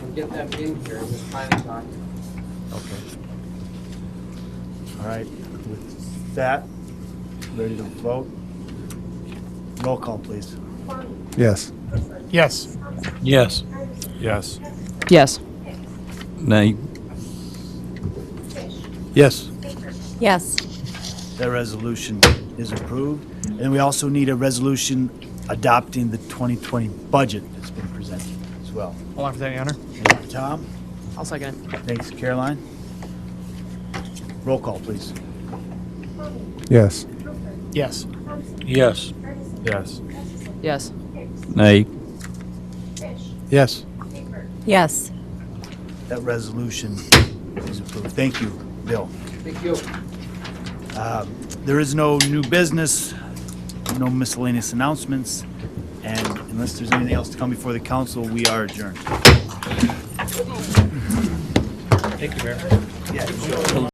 and get them in here this planning document. Okay. All right, with that, ready to vote? Roll call, please. Yes. Yes. Yes. Yes. Yes. Nay. Yes. Yes. That resolution is approved. And we also need a resolution adopting the 2020 budget that's been presented as well. All in for that, Your Honor? Thank you, Tom. I'll second Thanks, Caroline. Roll call, please. Yes. Yes. Yes. Yes. it. Yes. Nay. Yes. Yes. That resolution is approved. Thank you, Bill. Thank you. Um, There is no new business, no miscellaneous announcements, and unless there's anything else to come before the council, we are adjourned. Thank you, Mayor. Yeah,